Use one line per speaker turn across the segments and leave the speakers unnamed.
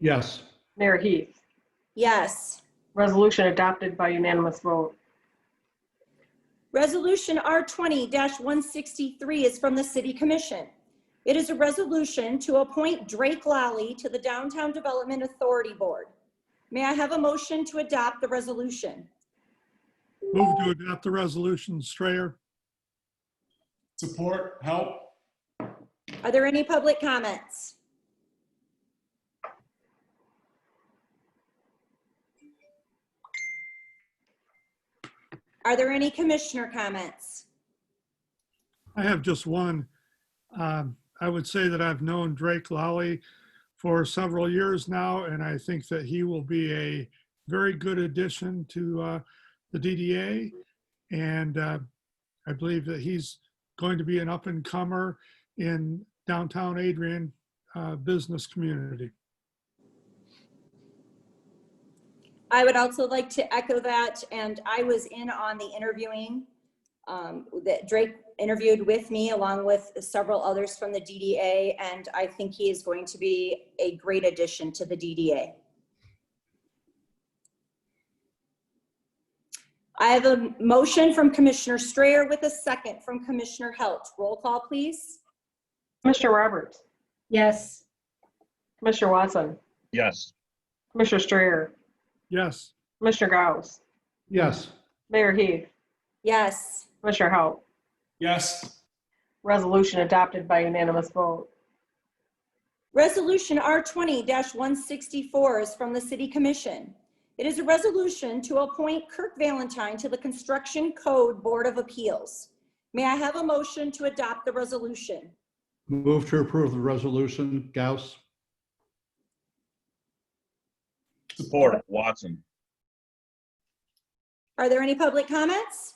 Yes.
Mayor Heath.
Yes.
Resolution adopted by unanimous vote.
Resolution R twenty one sixty-three is from the City Commission. It is a resolution to appoint Drake Lally to the Downtown Development Authority Board. May I have a motion to adopt the resolution?
Move to adopt the resolution, Strayer.
Support, help?
Are there any public comments? Are there any commissioner comments?
I have just one. Um, I would say that I've known Drake Lally for several years now, and I think that he will be a very good addition to uh, the DDA. And uh, I believe that he's going to be an up and comer in downtown Adrian uh, business community.
I would also like to echo that, and I was in on the interviewing um, that Drake interviewed with me along with several others from the DDA, and I think he is going to be a great addition to the DDA. I have a motion from Commissioner Strayer with a second from Commissioner Halt. Roll call, please.
Commissioner Roberts.
yes,
Commissioner Watson.
yes,
Commissioner Strayer.
Yes.
Commissioner Gauss.
Yes.
Mayor Heath.
Yes.
Commissioner Hou.
Yes.
Resolution adopted by unanimous vote.
Resolution R twenty one sixty-four is from the City Commission. It is a resolution to appoint Kirk Valentine to the Construction Code Board of Appeals. May I have a motion to adopt the resolution?
Move to approve the resolution, Gauss.
support, Watson,
Are there any public comments?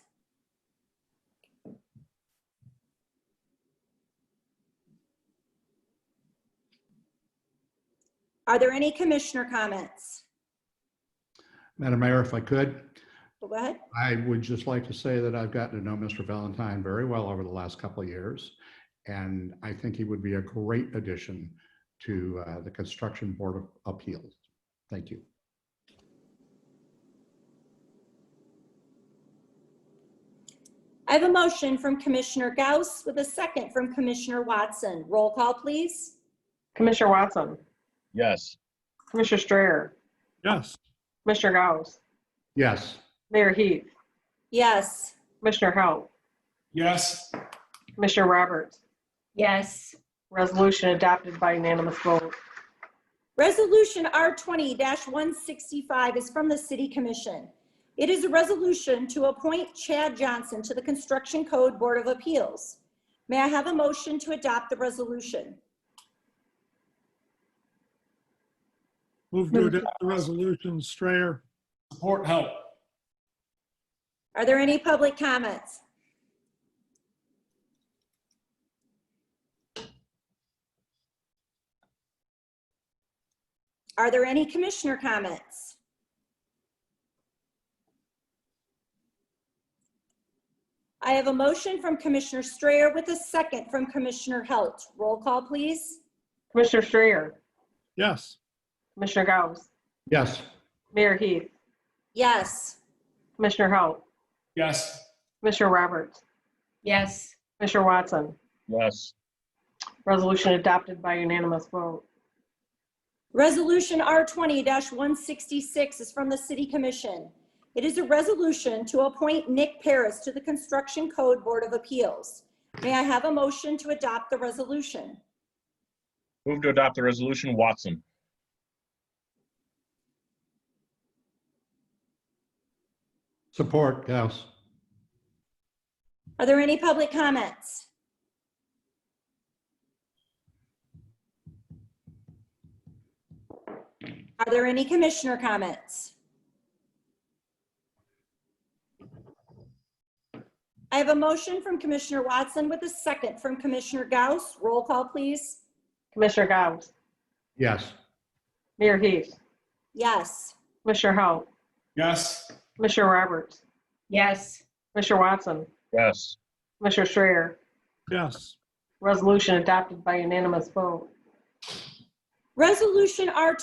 Are there any commissioner comments?
Madam Mayor, if I could,
Go ahead.
I would just like to say that I've gotten to know Mr. Valentine very well over the last couple of years. And I think he would be a great addition to uh, the Construction Board of Appeals. Thank you.
I have a motion from Commissioner Gauss with a second from Commissioner Watson. Roll call, please.
Commissioner Watson.
yes,
Commissioner Strayer.
Yes.
Commissioner Gauss.
Yes,
Mayor Heath.
Yes.
Commissioner Hou.
Yes.
Commissioner Roberts.
yes,
Resolution adopted by unanimous vote.
Resolution R twenty one sixty-five is from the City Commission. It is a resolution to appoint Chad Johnson to the Construction Code Board of Appeals. May I have a motion to adopt the resolution?
Move to adopt the resolution, Strayer.
Support, help?
Are there any public comments? Are there any commissioner comments? I have a motion from Commissioner Strayer with a second from Commissioner Halt. Roll call, please.
Commissioner Strayer.
Yes.
Commissioner Gauss.
yes,
Mayor Heath.
Yes.
Commissioner Hou.
Yes.
Commissioner Roberts.
yes,
Commissioner Watson.
yes,
Resolution adopted by unanimous vote.
Resolution R twenty one sixty-six is from the City Commission. It is a resolution to appoint Nick Paris to the Construction Code Board of Appeals. May I have a motion to adopt the resolution?
move to adopt the resolution, Watson,
support, Gauss.
Are there any public comments? Are there any commissioner comments? I have a motion from Commissioner Watson with a second from Commissioner Gauss. Roll call, please.
Commissioner Gauss.
Yes,
Mayor Heath.
Yes.
Commissioner Hou.
Yes.
Commissioner Roberts.
yes,
Commissioner Watson.
yes,
Commissioner Strayer.
Yes.
Resolution adopted by unanimous vote.
Resolution R